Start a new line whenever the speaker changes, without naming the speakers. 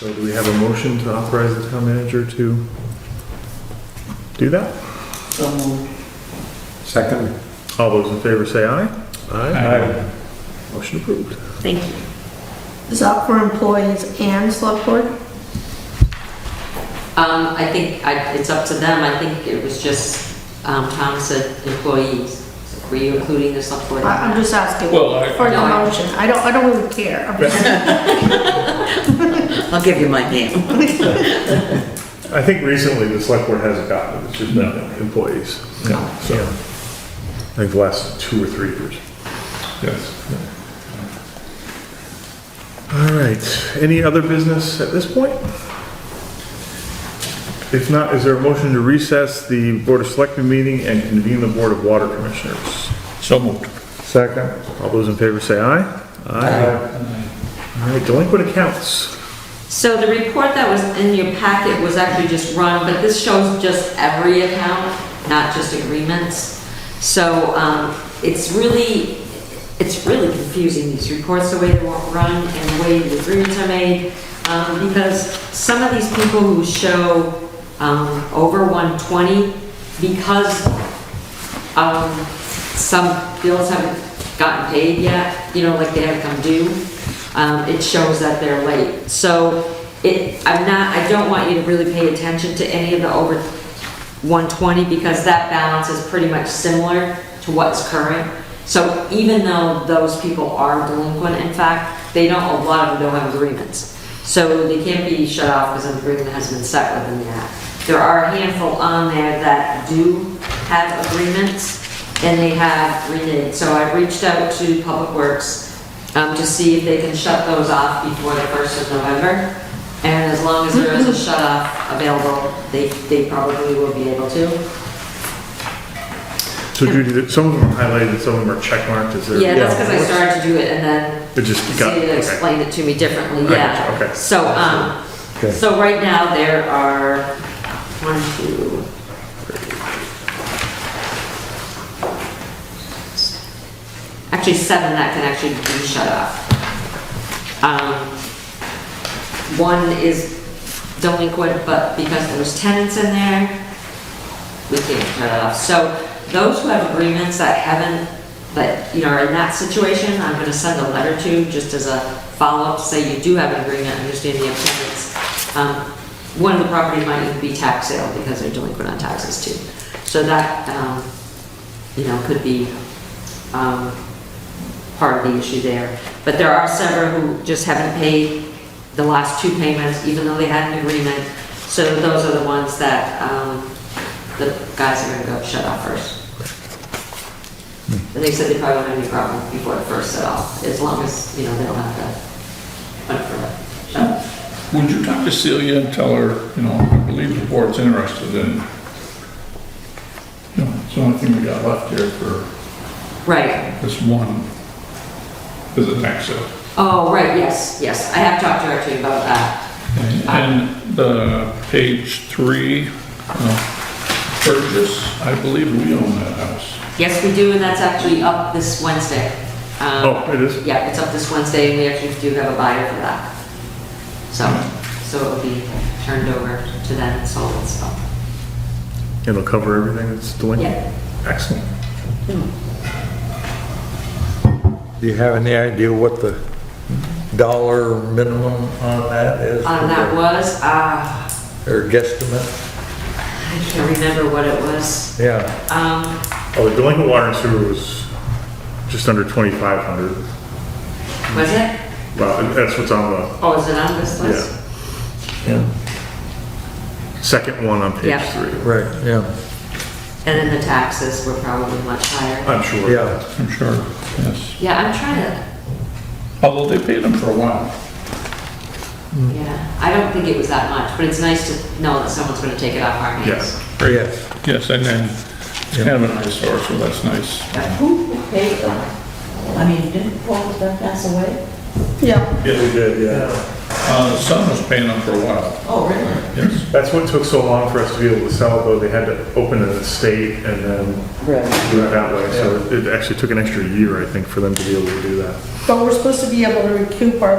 So do we have a motion to authorize the town manager to do that?
So moved.
Second?
All those in favor say aye. Aye. Motion approved.
Thank you.
Is that for employees and select board?
Um, I think I, it's up to them. I think it was just, um, Tom said employees. Were you including the select board?
I- I'm just asking
Well, I-
for the
No, I-
motion. I don't, I don't really care. I'm just-
I'll give you my name.
I think recently the select board hasn't gotten it, it's just been employees. No. So, I think the last two or three years.
Yes.
All right, any other business at this point? If not, is there a motion to recess the Board of Selectmen meeting and convene the Board of Water Commissioners?
So moved.
Second. All those in favor say aye. Aye. All right, delinquent accounts.
So the report that was in your packet was actually just run, but this shows just every account, not just agreements. So, um, it's really, it's really confusing, these reports, the way they're run and the way the agreements are made. Um, because some of these people who show, um, over 120, because um, some bills haven't gotten paid yet, you know, like they haven't come due, um, it shows that they're late. So it, I'm not, I don't want you to really pay attention to any of the over 120 because that balance is pretty much similar to what's current. So even though those people are delinquent, in fact, they don't, a lot of them don't have agreements. So they can't be shut off because an agreement has been set within the act. There are a handful on there that do have agreements and they have renewed. So I've reached out to Public Works um, to see if they can shut those off before the 1st of November. And as long as there is a shut off available, they, they probably will be able to.
So Judy, some of them are highlighted, some of them are checkmarked, is there?
Yeah, that's because I started to do it and then
It just got,
Celia
okay.
explained it to me differently,
I
yeah.
gotcha, okay.
So, um,
Okay.
so right now there are one, two, three. Actually, seven that can actually be shut off. Um, one is delinquent, but because there was tenants in there, we can't shut it off. So those who have agreements that haven't, that, you know, are in that situation, I'm gonna send a letter to, just as a follow-up, to say you do have an agreement, I understand the impediments. Um, One of the property might even be tax sale, because they're delinquent on taxes too. So that, um, you know, could be, um, part of the issue there. But there are several who just haven't paid the last two payments, even though they had an agreement. So those are the ones that, um, the guys are gonna go shut off first. And they said they probably won't have any problem before the first set off, as long as, you know, they don't have to, hunt for it. shut off.
Would you talk to Celia and tell her, you know, I believe the board's interested in, you know, it's the only thing we got left here for
Right,
this one, is a tax sale.
oh, right, yes, yes, I have talked to her too about that.
And the page three, uh, purchase, I believe we own that house.
Yes, we do, and that's actually up this Wednesday. Um,
Oh, it is?
Yeah, it's up this Wednesday, and we actually do have a buyer for that. So, so it'll be turned over to them and sold and stuff.
It'll cover everything that's delinquent?
Yeah.
Excellent.
Do you have any idea what the dollar minimum on that is?
Um, that was, uh,
Or guesstimate?
I can't remember what it was.
Yeah,
Um,
Oh, the delinquent water and sewer was just under 2,500.
was it?
Well, that's what's on the
Oh, is it on this list?
yeah,
second one on page
Yeah.
three.
right, yeah,
And then the taxes were probably much higher.
I'm sure.
yeah.
I'm sure, yes.
Yeah, I'm trying to,
Although they paid them for a while.
yeah, I don't think it was that much, but it's nice to know that someone's gonna take it off our hands.
Yes.
Oh, Yes,
Yes, and then it's kind of an eyesore, so that's nice.
Who paid them? I mean, didn't Paul Duff pass away?
Yeah,
Yeah, we did, yeah.
Uh, the son was paying them for a while,
Oh, really?
yes.
That's what took so long for us to be able to sell, it, though. They had to open an estate and then
Really?
do it that way. So it actually took an extra year, I think, for them to be able to do that.
but we're supposed to be able to recoup our